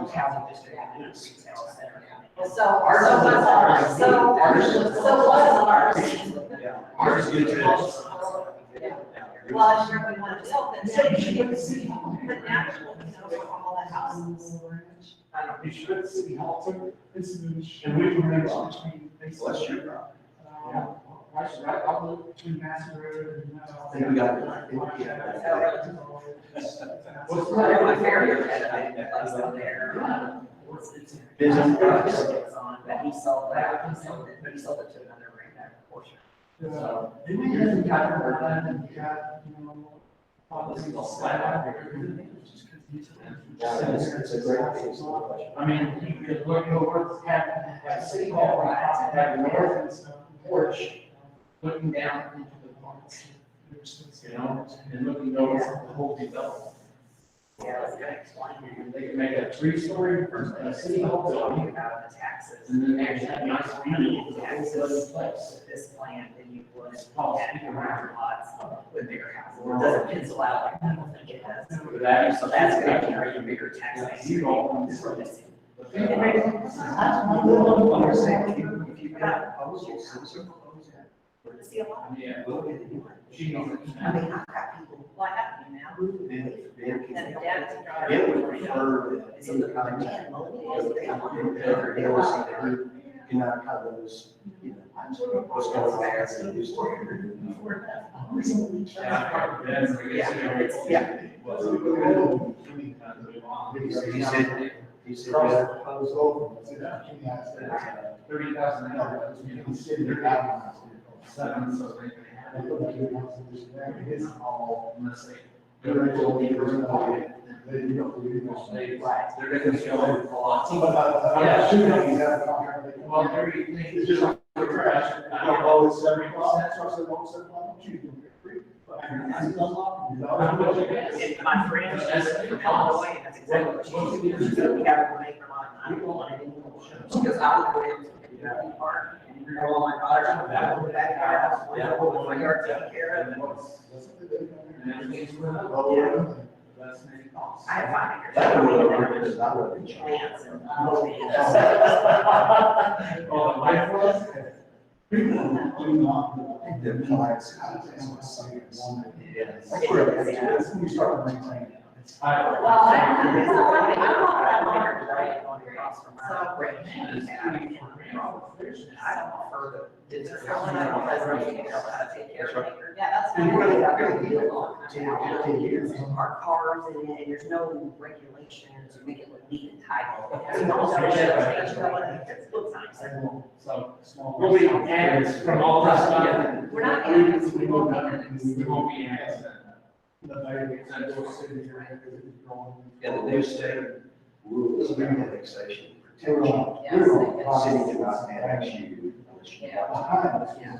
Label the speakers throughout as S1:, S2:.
S1: It's housing district and then it's retail center.
S2: So, so what's ours? So, so what's ours?
S1: Yeah.
S3: Ours is good
S2: Well, I'm sure we want to help them, so you should give the city hall, but now people can know from all the houses.
S1: I don't
S4: You should see how to, this is.
S3: And we can make some
S4: between.
S3: Bless you, bro.
S4: Uh, Right, right, I live between Mass Road and. uh,
S3: Then we got it. I think we got it.
S4: What's
S1: know.
S4: that?
S1: My barrier that I that's up there.
S3: Business products.
S1: It's on, But he sold that, he sold it, he sold it to another brand that portion.
S4: Uh,
S1: So,
S4: Then we had the guy from Ireland, he got, you know, all this little slide out there.
S3: Yeah, it's, it's a great thing. It's a good question.
S4: I mean, you could look over, what's happening at City Hall, right, out that north and stuff, porch, looking down into the parks. You know, and looking over the whole development.
S1: yeah, that's good explaining.
S4: And They can make a three-story person, a City Hall
S1: Talking
S4: building,
S1: about the taxes.
S4: and then they actually have nice community, it's a whole other place.
S1: with this plan than you would at your round lots with bigger houses. It doesn't pencil out like I don't think it does.
S4: But that is
S1: So
S4: something.
S1: that's gonna carry you bigger tax base.
S4: You don't-
S1: It's really missing.
S4: It makes-
S3: I'm saying, if you, if you got proposals, some sort of proposal.
S2: Want to see a lot?
S4: Yeah.
S3: Look at it.
S4: She knows it.
S2: I mean, I've got people, well, I have you now,
S3: Then, then
S2: and
S3: it
S2: the dad's a
S3: can-
S2: driver.
S3: it would refer
S2: It's
S3: in
S2: in
S3: the
S2: the
S3: kind of.
S2: man, well, it is, they want it.
S3: Every day, it's like, you know, kind of those, you know, what's going on there, it's used to.
S4: Yeah, that's, I guess, you know, it's-
S3: Yeah. He said, he said, yeah.
S4: Thirty thousand dollars, you know, seven, so they can have it unless they. They're gonna show it a lot. Well, there you think.
S5: It's just like the trash. I don't know, it's seventy bucks. So I said, well, seven, why don't you do it free? But I mean, that's not a lot. You know, that's what you get.
S1: And my friend, she's from Illinois, that's exactly what she did. She said, we have one acre lot, and I don't want any more. She goes, I would live in that park, and you're gonna want "Oh, my daughter out of that, with that car, that's my yard, with my yard taken care of. and
S4: And that means we're not, that's many costs.
S1: I have five acres.
S3: That would have been, because I would have been. charged.
S1: Plants and, oh,
S4: Oh, the life was?
S5: People do not.
S3: I think the clients, I was asking my son, yes.
S1: I didn't-
S5: That's when we start maintaining.
S4: I-
S2: Well, I don't know, it's not like, I don't know
S1: I
S2: that
S1: want
S2: large,
S1: her to
S2: right?
S1: write on the cross from her. And I don't prefer the digital.
S2: Someone I don't know.
S1: how to take care of it.
S2: Yeah, that's.
S3: And we're
S2: fine.
S3: not gonna deal with
S1: Ten, fifteen years, our cars in it, and there's no regulations, we can leave and title. So don't sell it, it's not like it's book signs.
S4: So, we'll be ads from all this stuff.
S2: We're not ads.
S4: We won't, we won't be ads.
S3: And the new state rules of annexation
S5: We're
S3: protection.
S5: on-
S2: Yes,
S5: we're
S2: they
S5: on-
S3: City cannot annex you unless you.
S2: Yeah.
S5: Yeah.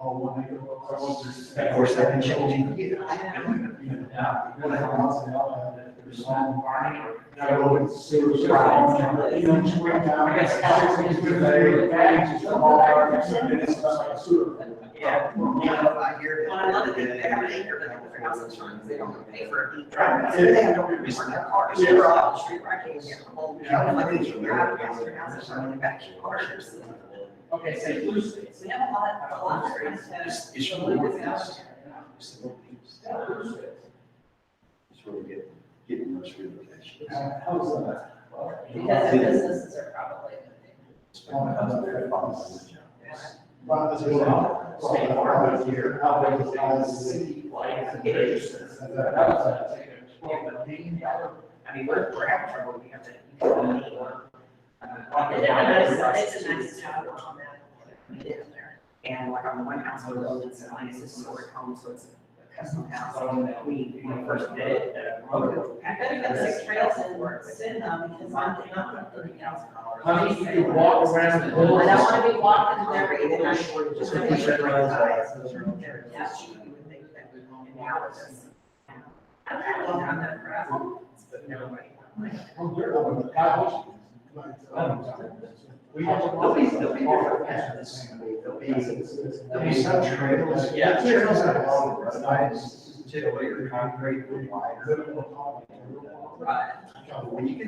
S5: Oh, when they go across.
S3: Of course, that can change in years.
S4: Yeah.
S5: When they come out, they all have it. There's some barney or- You know, just went down.
S4: I guess Alex is with
S5: They-
S4: the-
S5: they just come all out and it's like a sewer.
S1: Yeah.
S3: You know, I hear
S1: Well,
S3: that.
S1: I love it, that they have an acre, but they don't have house insurance, they don't pay for a deed.
S5: Right.
S1: So they have no remorse in their cars,
S5: Yeah.
S1: they're out on the street, where I can't even get home. You know, like,
S3: California's a
S1: you're out
S3: weird
S1: past your house, it's not like back to your car, you're just-
S4: Okay, so you lose it.
S2: We have a lot, a lot of friends that
S3: It's, it's really what it is. It's the little things. It's where we get, getting those relocations.
S5: Uh, How is that?
S2: because their businesses are probably.
S3: Spend my husband there, father, mother, job.
S2: Yes.
S5: Well, this is-
S4: State farm up here, how big is the city lights and business? That was a take a twelve million dollar.
S1: I mean, we're, we're having trouble, we have to. you know, we work, uh, on the-
S2: It's a nice job on that.
S1: we did in there. And like on the one house, we're building, so mine is a historic home, so it's a custom house. We, when we first did it, the road.
S2: I bet you got six trails in work, send them, because I'm, I'm not
S1: Thirty
S2: putting out.
S1: thousand dollars.
S4: Honey, you can walk around the
S2: I
S4: whole.
S2: don't wanna be walking there either.
S3: Just gonna push that around.
S1: Yeah, you would think that we own an hours. I'm not really on that gravel, but nobody.
S5: Well, they're the one that got it.
S4: We have a-
S3: There'll be, there'll be different paths. I mean, There'll be, there'll be some trails.
S4: Yeah.
S3: Trails that are along the road. I just, take away the concrete, the lines.
S1: Right.
S3: When you get